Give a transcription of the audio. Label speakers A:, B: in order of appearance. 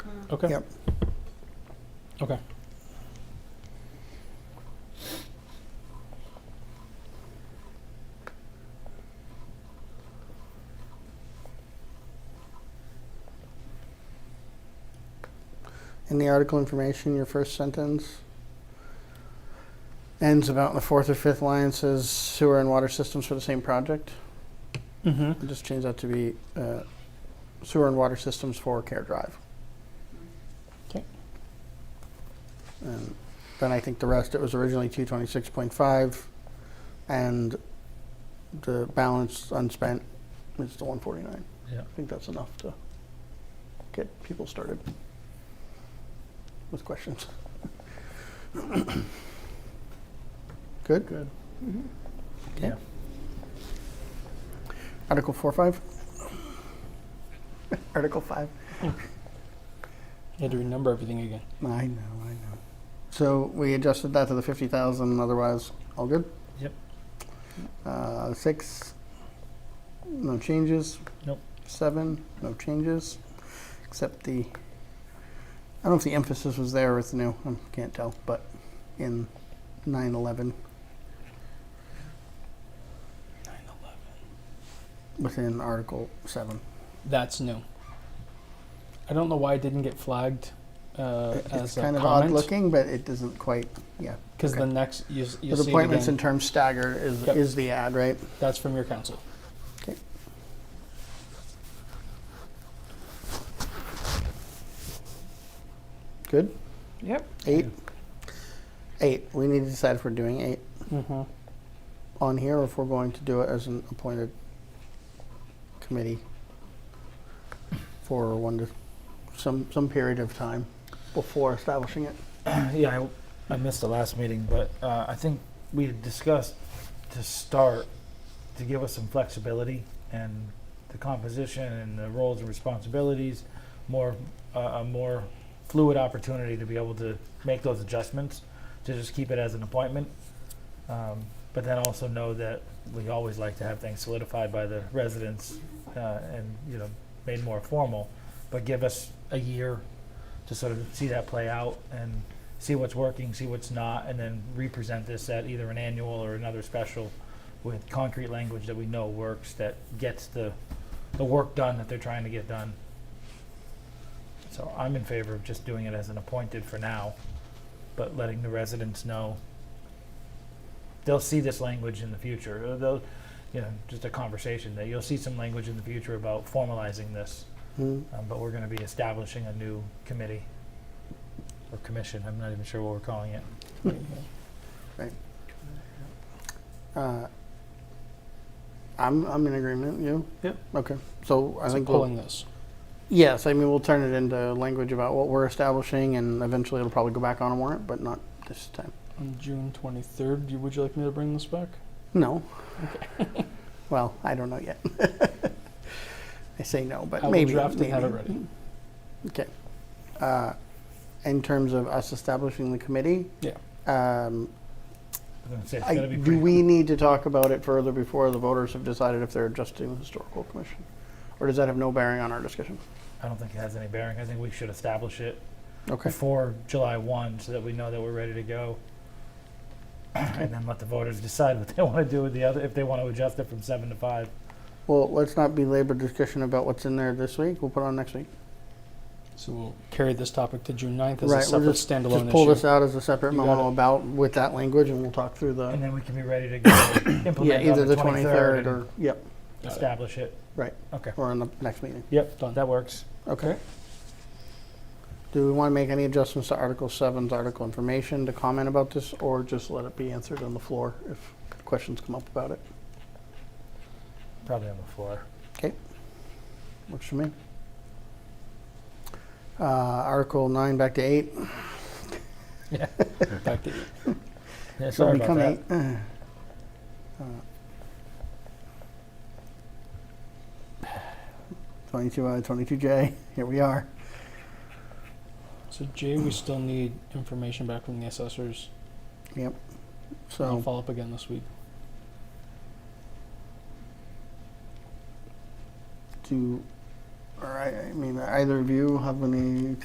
A: Okay,
B: Yep.
A: okay.
B: In the article information, your first sentence ends about in the fourth or fifth line says sewer and water systems for the same project.
A: Mm-hmm.
B: I'll Just change that to be uh, sewer and water systems for Care Drive.
A: 'Kay.
B: And then I think the rest, it was originally two twenty-six point five, and the balance unspent is the one forty-nine.
C: Yeah.
B: I think that's enough to get people started with questions. Good? Good.
C: Yeah.
B: Article four, five? Article five?
A: You had to renumber everything again.
B: I know, I know. So we adjusted that to the fifty thousand, otherwise, all good?
C: Yep.
B: Uh, six, no changes.
C: Nope.
B: Seven, no changes, except the, I don't know if the emphasis was there or it's new, I can't tell, but in nine eleven,
A: Nine eleven.
B: within Article seven.
A: That's new. I don't know why it didn't get flagged uh,
B: It-
A: as
B: It's
A: a
B: kind of odd
A: comment,
B: looking, but it doesn't quite, yeah.
A: because
B: okay.
A: the next, you, s- you'll
B: Because
A: see it
B: appointments
A: again.
B: in terms staggered is,
A: Yep.
B: is the ad, right?
A: That's from your council.
B: Good?
A: Yep.
B: Eight? Eight, we need to decide if we're doing eight
A: Mm-hmm.
B: on here or if we're going to do it as an appointed committee for one to, some, some period of time before establishing it.
C: Yeah, I, I missed the last meeting, but uh, I think we had discussed to start, to give us some flexibility and the composition and the roles and responsibilities, more, uh, a more fluid opportunity to be able to make those adjustments, to just keep it as an appointment. Um, But then also know that we always like to have things solidified by the residents uh, and, you know, made more formal. But give us a year to sort of see that play out and see what's working, see what's not, and then represent this at either an annual or another special with concrete language that we know works, that gets the, the work done that they're trying to get done. So I'm in favor of just doing it as an appointed for now, but letting the residents know. They'll see this language in the future, or they'll, you know, just a conversation, that you'll see some language in the future about formalizing this.
A: Mm-hmm.
B: Hmm,
C: Um, but we're gonna be establishing a new committee or commission, I'm not even sure what we're calling it.
B: uh, I'm, I'm in agreement, you?
A: Yep.
B: Okay, so I
A: So
B: think we'll
A: pulling this.
B: Yes, I mean, we'll turn it into language about what we're establishing, and eventually it'll probably go back on a warrant, but not this time.
A: On June 23rd, you- would you like me to bring this back?
B: No. Well, I don't know yet. I say no,
A: I
B: but
A: will
B: maybe,
A: draft it and have it
B: maybe. Okay. Uh, In terms of us establishing the committee?
A: Yeah.
C: I'm
B: um,
C: gonna say it's
B: I-
C: gotta be
B: Do
C: pretty-
B: we need to talk about it further before the voters have decided if they're adjusting the historical commission? Or does that have no bearing on our discussion?
C: I don't think it has any bearing, I think we should establish it
B: Okay.
C: before July one, so that we know that we're ready to go. And then let the voters decide what they wanna do with the other, if they wanna adjust it from seven to five.
B: Uh-huh. Well, let's not belabor discussion about what's in there this week. We'll put it on next week.
A: So we'll carry this topic to June 9th as
B: Right,
A: a
B: we'll
A: separate standalone
B: Just pull this
A: issue.
B: out as a separate
C: You got
B: memo
C: it.
B: about with that language and we'll talk through
C: And
B: the,
C: then we can be ready to go
B: yeah,
C: implement it
B: either
C: on
B: the
C: the twenty-third
B: twenty-third or,
C: and
B: yep,
A: Got it.
C: establish it.
B: Right.
C: Okay,
B: or in the next meeting.
C: yep,
A: Done.
C: that works.
B: Okay. Do we want to make any adjustments to Article Seven's article information to comment about this or just let it be answered on the floor if questions come up about it?
C: Probably on the floor.
B: Works for me. Uh, Article nine, back to eight.
A: Back to-
C: Yeah,
B: So
C: sorry about
B: become
C: that.
B: eight. Uh, Uh, Twenty-two I, twenty-two J, here we are.
A: So Jay, we still need information back from the assessors. I'll
B: So,
A: follow up again this week.
B: do, all right, I mean, either of you have any